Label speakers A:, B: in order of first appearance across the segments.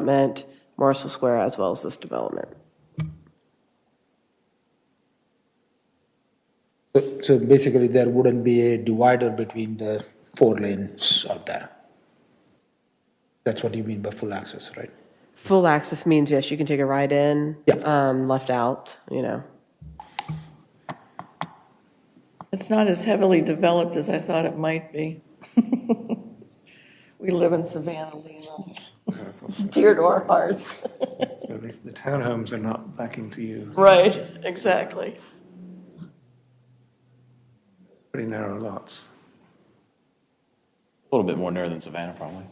A: development, Marshall Square, as well as this development.
B: So- So basically, there wouldn't be a divider between the four lanes out there. That's what you mean by full access, right?
A: Full access means, yes, you can take a right in,
B: Yeah.
A: um, left out, you know.
C: It's not as heavily developed as I thought it might be. We live in Savannah, Lena. Dear to our hearts.
D: So the, the townhomes are not backing to you.
C: Right, exactly.
D: Pretty narrow lots.
E: A little bit more narrow than Savannah, probably.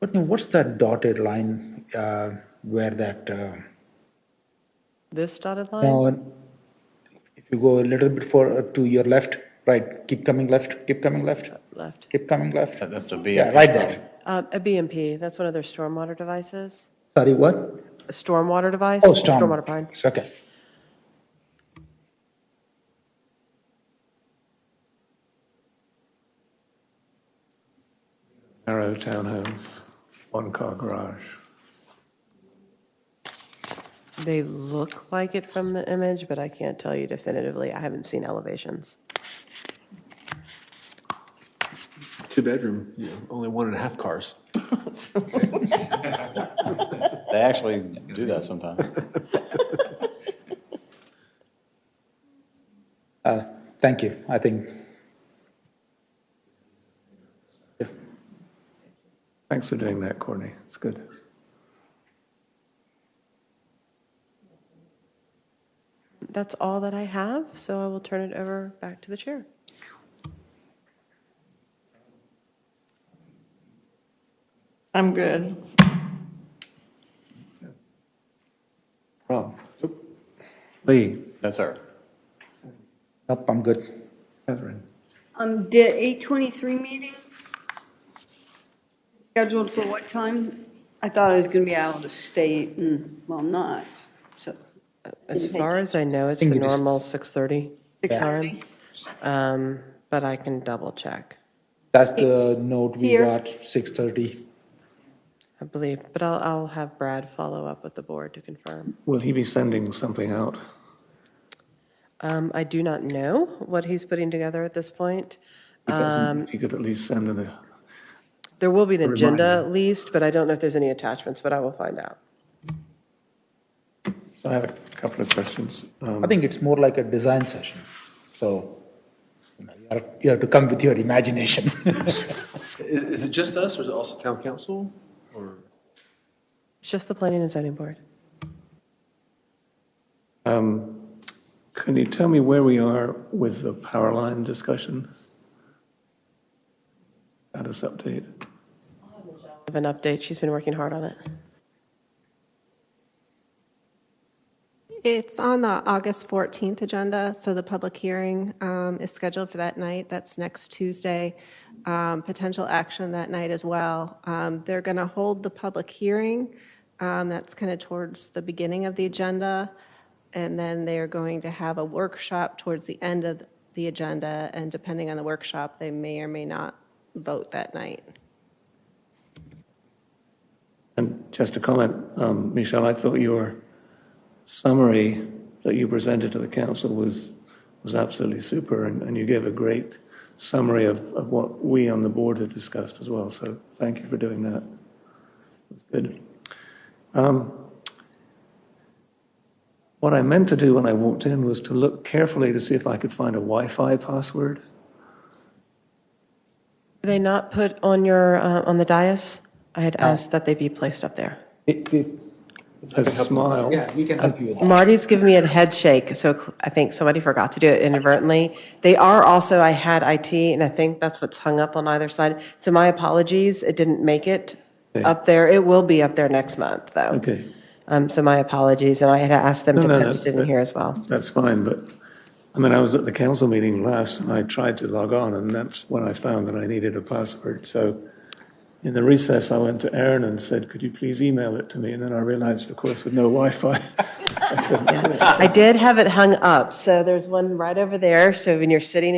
B: But now, what's that dotted line uh, where that? Uh,
A: This dotted line?
B: now, if you go a little bit for uh, to your left, right, keep coming left, keep coming left,
A: Left.
B: keep coming left.
E: That- That's a
B: Yeah,
E: VIP.
B: right there.
A: Um, a BMP, that's one of their stormwater devices.
B: Sorry, what?
A: A stormwater device?
B: Oh, storm.
A: Stormwater pond.
B: It's Okay.
D: Narrow townhomes, one car garage.
A: They look like it from the image, but I can't tell you definitively. I haven't seen elevations.
F: Two bedroom, you know, only one and a half cars.
E: They actually do that sometimes.
B: Uh, thank you. I think
D: Thanks for doing that, Courtney. It's good.
A: That's all that I have, so I will turn it over back to the chair.
C: I'm good.
D: Ron? Lee?
E: Yes, sir.
B: nope, I'm good.
D: Catherine?
G: Um, the eight twenty-three meeting scheduled for what time? I thought I was gonna be out of state and, well, I'm not, so.
A: As far as I know, it's the
B: think it is-
A: normal 6:30 time,
G: 6:30?
A: um, but I can double check,
B: That's the note we
G: Here.
B: got. Six thirty.
A: I believe. But I'll, I'll have Brad follow up with the board to confirm.
D: Will he be sending something out?
A: Um, I do not know what he's putting together at this point.
D: If he
A: Um,
D: doesn't, If he could at least send an,
A: There will be an
D: Remind
A: agenda
D: me.
A: at least, but I don't know if there's any attachments, but I will find out.
D: so I have a couple of questions. Um,
B: I think it's more like a design session. So you, know, you, have, you have to come with your imagination.
F: I- Is, it just us, or is it also town council? Or
A: It's just the planning and zoning board.
D: Um, Can you tell me where we are with the power line discussion? Status update?
A: Of an update, she's been working hard on it.
H: It's on the August 14th agenda, so the public hearing um, is scheduled for that night. That's next Tuesday. Um, Potential action that night as well. Um, They're going to hold the public hearing. um, That's kind of towards the beginning of the agenda. And then they are going to have a workshop towards the end of the agenda. And depending on the workshop, they may or may not vote that night.
D: And just a comment, um, Michelle, I thought your summary that you presented to the council was, was absolutely super, and, and you gave a great summary of, of what we on the board had discussed as well, so thank you for doing that. It was good. Um, What I meant to do when I walked in was to look carefully to see if I could find a Wi-Fi password.
A: Were they not put on your, uh, on the dais? I had asked that they be placed up there.
D: A smile.
B: we can help you with
A: Marty's giving me a head shake, so cl- I think somebody forgot to do it inadvertently. They are also, I had IT, and I think that's what's hung up on either side. So my apologies, it didn't make it
D: Okay.
A: up there. It will be up there next month, though.
D: Okay.
A: Um, so my apologies, and I had asked them
D: No,
A: to
D: no,
A: post
D: no,
A: it in
D: but-
A: here as well.
D: That's fine, but I mean, I was at the council meeting last and I tried to log on and that's when I found that I needed a password. So in the recess, I went to Aaron and said, could you please email it to me? And then I realized, of course, with no Wi-Fi, I couldn't do it.
A: I did have it hung up, so there's one right over there. So when you're sitting